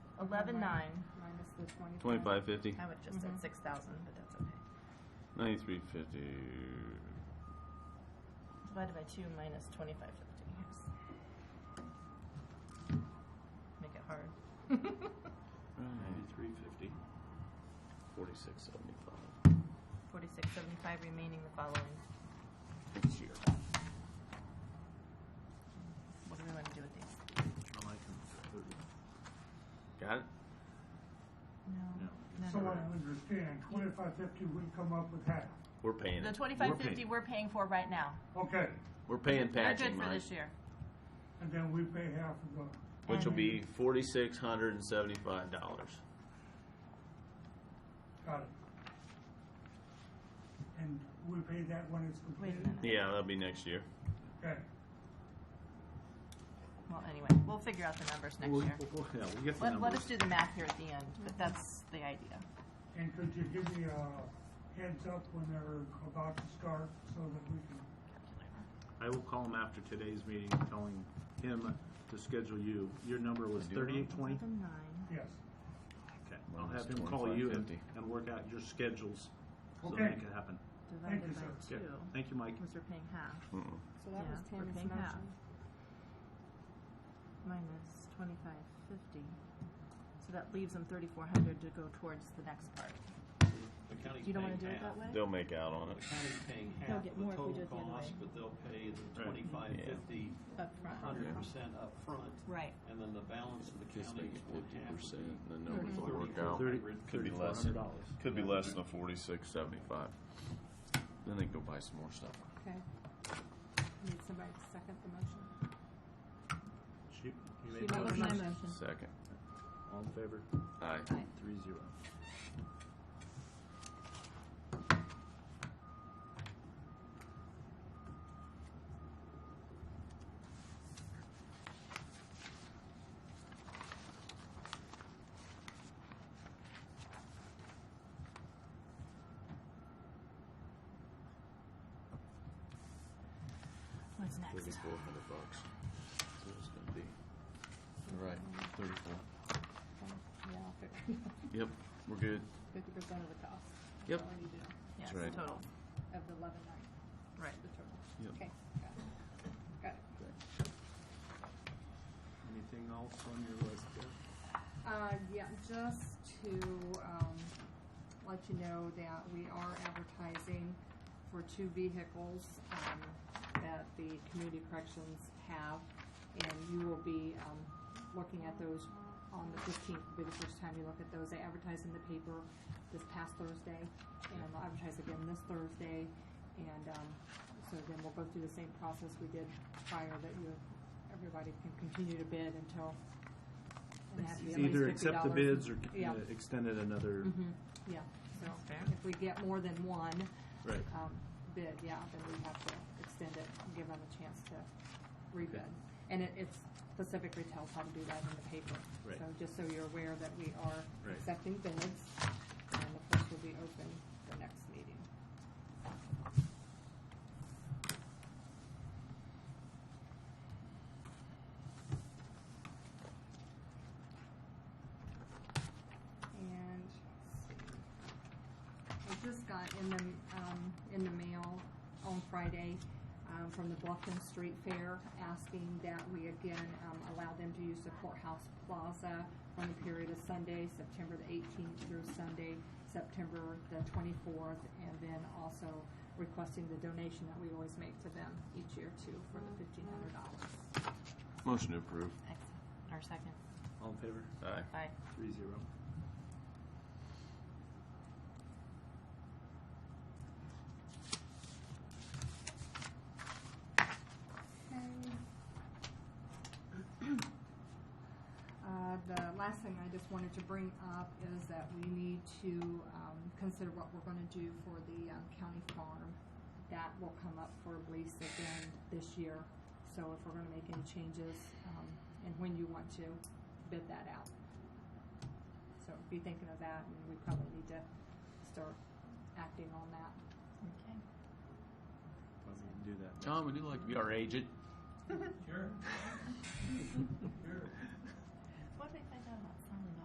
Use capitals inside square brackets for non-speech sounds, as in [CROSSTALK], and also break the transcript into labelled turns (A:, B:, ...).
A: eleven nine,
B: Minus the twenty-five.
C: Twenty-five fifty,
D: I would just said six thousand, but that's okay.
C: ninety-three fifty,
D: Divided by two minus twenty-five fifty. Make it hard.
E: Ninety-three fifty.
C: forty-six seventy-five.
D: Forty-six seventy-five remaining the following.
C: Next year.
D: What do we want to do with these?
E: I like them.
C: Got it?
D: No.
F: So I understand, twenty-five fifty, we come up with half.
C: We're paying
D: The
C: it.
D: twenty-five
C: We're
D: fifty
C: paying-
D: we're paying for right now.
F: Okay,
C: We're
D: We're
C: paying patching,
D: good for
C: Mike,
D: this year.
F: and then we pay half of the,
C: which will
D: And-
C: be forty-six hundred and seventy-five dollars.
F: got it. And we pay that when it's
D: Wait a
F: completed?
D: minute.
C: Yeah, that'll be next year.
F: Okay,
D: Well, anyway, we'll figure out the numbers next
E: We'll-
D: year.
E: we'll- Yeah, we'll get the
D: Let, let us do
E: numbers.
D: the math here at the end, but that's the idea.
F: and could you give me a heads up when they're about to start, so that we can,
E: I will call him after today's meeting, telling him to schedule you. Your number was thirty-eight twenty?
D: Nine.
F: yes.
E: Okay, I'll
C: Minus
E: have him call you and,
C: 25.50.
E: and work out your schedules, so
F: Okay.
E: make it happen.
F: Thank you,
D: Divided by
F: sir.
D: two,
E: Okay, thank you, Mike.
D: because we're paying half.
B: So that was
D: Yeah, we're
B: Tammy's
D: paying half.
B: motion.
D: minus twenty-five fifty. So that leaves them thirty-four hundred to go towards the next part.
G: The county's
D: You don't wanna
G: paying
D: do it that
G: half.
D: way?
C: They'll make out on it.
G: The county's paying
D: They'll
G: half
D: get
G: of
D: more
G: the
D: if we do
G: total
D: it the other
G: cost,
D: way.
G: but they'll pay the
C: Right.
G: twenty-five,
C: Yeah.
G: fifty,
D: Upfront.
G: hundred percent upfront.
D: Right.
G: And then the balance of the
C: Guess they
G: county
C: get
G: would
C: fifty
G: have to
C: percent,
G: be
C: and the
D: Mm-hmm.
C: numbers will work
G: Thirty-
C: out.
E: Thirty-
C: Could be less.
E: $3,400.
C: Could be less than forty-six seventy-five. Then they can go buy some more stuff.
B: Okay. Need somebody to second the motion.
E: She, you made
B: That
E: the
B: was
E: motion.
B: my motion.
C: Second.
E: All in favor?
C: Aye.
E: Three zero.
D: What's next?
C: Thirty-four hundred bucks. That's what it's gonna be. All right, thirty-four.
B: Yeah, I'll figure
C: Yep, we're good.
B: [LAUGHS] fifty percent of the cost. That's
C: Yep.
B: all I need to know,
D: Yes,
C: That's right.
D: total.
B: Of the eleven nine,
D: Right.
B: the total.
C: Yep.
B: Okay, got it. Got it.
E: Anything else on your list there?
B: Uh, yeah, just to, um, let you know that we are advertising for two vehicles, um, that the community corrections have. And you will be, um, looking at those on the fifteenth, will be the first time you look at those. They advertised in the paper this past Thursday, and they'll advertise again this Thursday. And, um, so then we'll go through the same process we did prior, that you, everybody can continue to bid until and have to be at least
E: Either
B: fifty
E: accept the
B: dollars.
E: bids or
B: Yeah,
E: uh, extend it another,
B: Mhm. yeah, so if we get more than one,
E: right.
B: um, bid, yeah, then we have to extend it, and give them a chance to rebid. And it, it specifically tells how to do that in the paper.
E: Right.
B: So just so you're aware that we are
E: Right.
B: accepting bids, and the first will be open the next meeting. And, let's see. I just got in the, um, in the mail on Friday, um, from the Bluffton Street Fair, asking that we again, um, allow them to use the courthouse plaza on the period of Sunday, September the eighteenth through Sunday, September the twenty-fourth, and then also requesting the donation that we always make to them each year too, for the fifteen hundred dollars.
C: Motion to approve.
D: Excellent. Our second.
E: All in favor?
C: Aye.
D: Aye.
E: Three zero.
B: Uh, The last thing I just wanted to bring up is that we need to um, consider what we're going to do for the um, county farm. That will come up for lease again this year, so if we're going to make any changes um, and when you want to bid that out. So be thinking of that, and we probably need to start acting on that.
D: Okay.
E: Why we can do that.
C: Tom, would you like to be our agent?
G: Sure. Sure.